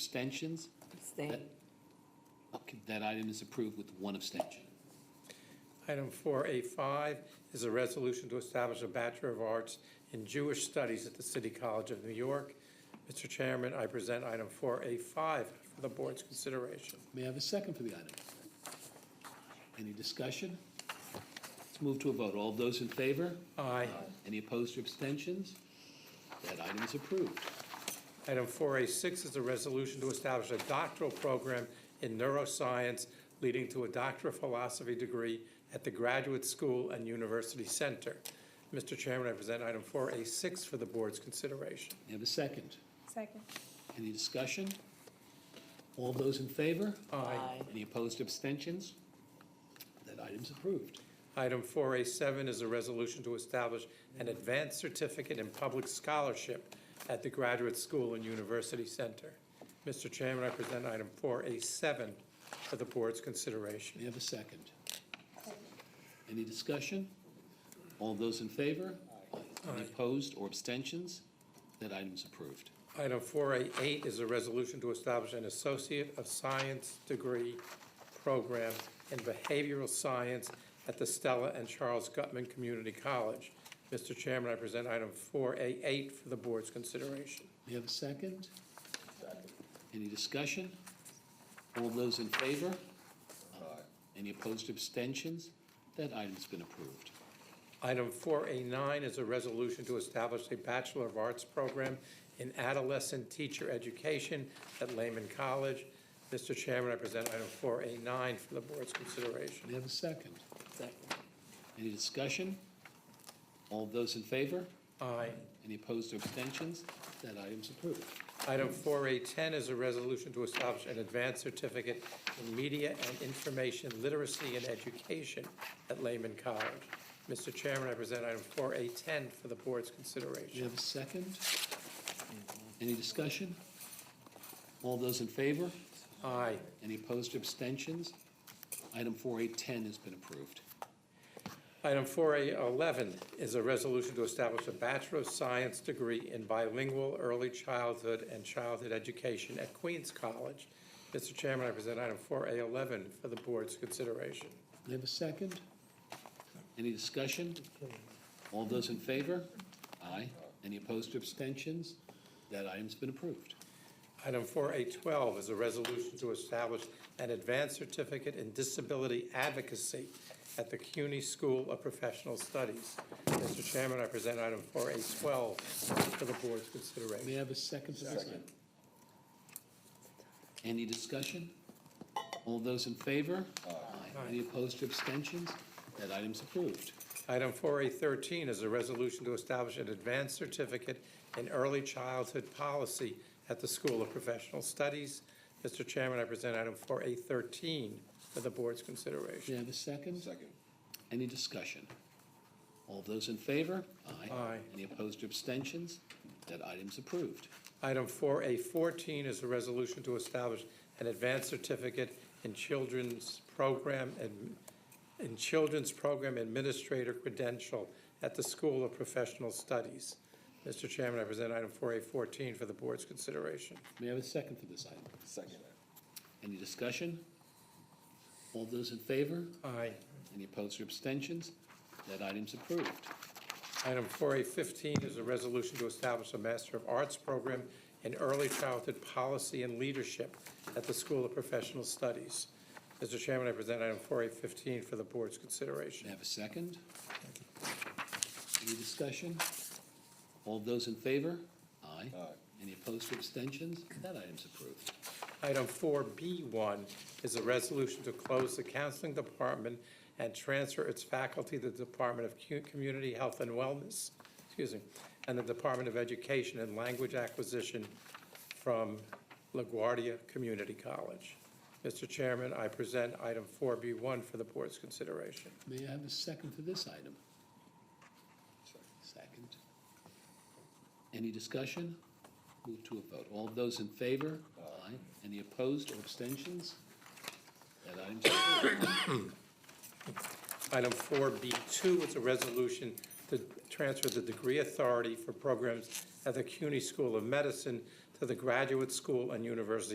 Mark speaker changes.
Speaker 1: abstentions?
Speaker 2: Abstain.
Speaker 1: Okay, That item is approved with one abstention.
Speaker 3: Item 4A5 is a resolution to establish a Bachelor of Arts in Jewish Studies at the City College of New York. Mr. Chairman, I present item 4A5 for the board's consideration.
Speaker 1: May I have a second for the item? Any discussion? Let's move to a vote. All those in favor?
Speaker 3: Aye.
Speaker 1: Any opposed or abstentions? That item is approved.
Speaker 3: Item 4A6 is a resolution to establish a doctoral program in neuroscience leading to a Doctor of Philosophy degree at the Graduate School and University Center. Mr. Chairman, I present item 4A6 for the board's consideration.
Speaker 1: May I have a second?
Speaker 2: Second.
Speaker 1: Any discussion? All those in favor?
Speaker 3: Aye.
Speaker 1: Any opposed or abstentions? That item's approved.
Speaker 3: Item 4A7 is a resolution to establish an advanced certificate in public scholarship at the Graduate School and University Center. Mr. Chairman, I present item 4A7 for the board's
Speaker 1: May I
Speaker 3: consideration.
Speaker 1: have a second? Any discussion? All those in favor? Any opposed or abstentions? That item's approved.
Speaker 3: Item 4A8 is a resolution to establish an Associate of Science degree program in behavioral science at the Stella and Charles Gutman Community College. Mr. Chairman, I present item 4A8 for the board's consideration.
Speaker 1: May I have a second? Any discussion? All those in favor? Any opposed or abstentions? That item's been approved.
Speaker 3: Item 4A9 is a resolution to establish a Bachelor of Arts program in adolescent teacher education at Lehman College. Mr. Chairman, I present item 4A9 for the board's consideration.
Speaker 1: May I have a second?
Speaker 2: Second.
Speaker 1: Any discussion? All those in favor?
Speaker 3: Aye.
Speaker 1: Any opposed or abstentions? That item's approved.
Speaker 3: Item 4A10 is a resolution to establish an advanced certificate in media and information literacy and education at Lehman College. Mr. Chairman, I present item 4A10 for the board's
Speaker 1: May
Speaker 3: consideration.
Speaker 1: I have a second? Any discussion? All those in favor?
Speaker 3: Aye.
Speaker 1: Any opposed or abstentions? Item 4A10 has been approved.
Speaker 3: Item 4A11 is a resolution to establish a Bachelor of Science degree in bilingual early childhood and childhood education at Queens College. Mr. Chairman, I present item 4A11 for the board's consideration.
Speaker 1: May I have a second? Any discussion? All those in favor? Aye. Any opposed or abstentions? That item's been approved.
Speaker 3: Item 4A12 is a resolution to establish an advanced certificate in disability advocacy at the CUNY School of Professional Studies. Mr. Chairman, I present item 4A12 for the board's consideration.
Speaker 1: May I have a second for this item? Any discussion? All those in favor? Aye. Any opposed or abstentions? That item's approved.
Speaker 3: Item 4A13 is a resolution to establish an advanced certificate in early childhood policy at the School of Professional Studies. Mr. Chairman, I present item 4A13 for the board's
Speaker 1: May
Speaker 3: consideration.
Speaker 1: I have a second? Second. Any discussion? All those in favor?
Speaker 3: Aye.
Speaker 1: Any opposed or abstentions? That item's approved.
Speaker 3: Item 4A14 is a resolution to establish an advanced certificate in children's program, and in children's program administrator credential at the School of Professional Studies. Mr. Chairman, I present item 4A14 for the board's consideration.
Speaker 1: May I have a second for this item?
Speaker 4: Second.
Speaker 1: Any discussion? All those in favor?
Speaker 3: Aye.
Speaker 1: Any opposed or abstentions? That item's approved.
Speaker 3: Item 4A15 is a resolution to establish a Master of Arts program in Early Childhood Policy and Leadership at the School of Professional Studies. Mr. Chairman, I present item 4A15 for the board's
Speaker 1: May I
Speaker 3: consideration.
Speaker 1: have a second? Any discussion? All those in favor? Aye. Any opposed or abstentions? That item's approved.
Speaker 3: Item 4B1 is a resolution to close the counseling department and transfer its faculty to the Department of Cu- Community Health and Wellness, excuse me, and the Department of Education and Language Acquisition from LaGuardia Community College. Mr. Chairman, I present item 4B1 for the board's consideration.
Speaker 1: May I have a second for this item? Second. Any discussion? Move to a vote. All those in favor? Aye. Any opposed or abstentions? That item's approved.
Speaker 3: Item 4B2 is a resolution to transfer the degree authority for programs at the CUNY School of Medicine to the Graduate School and University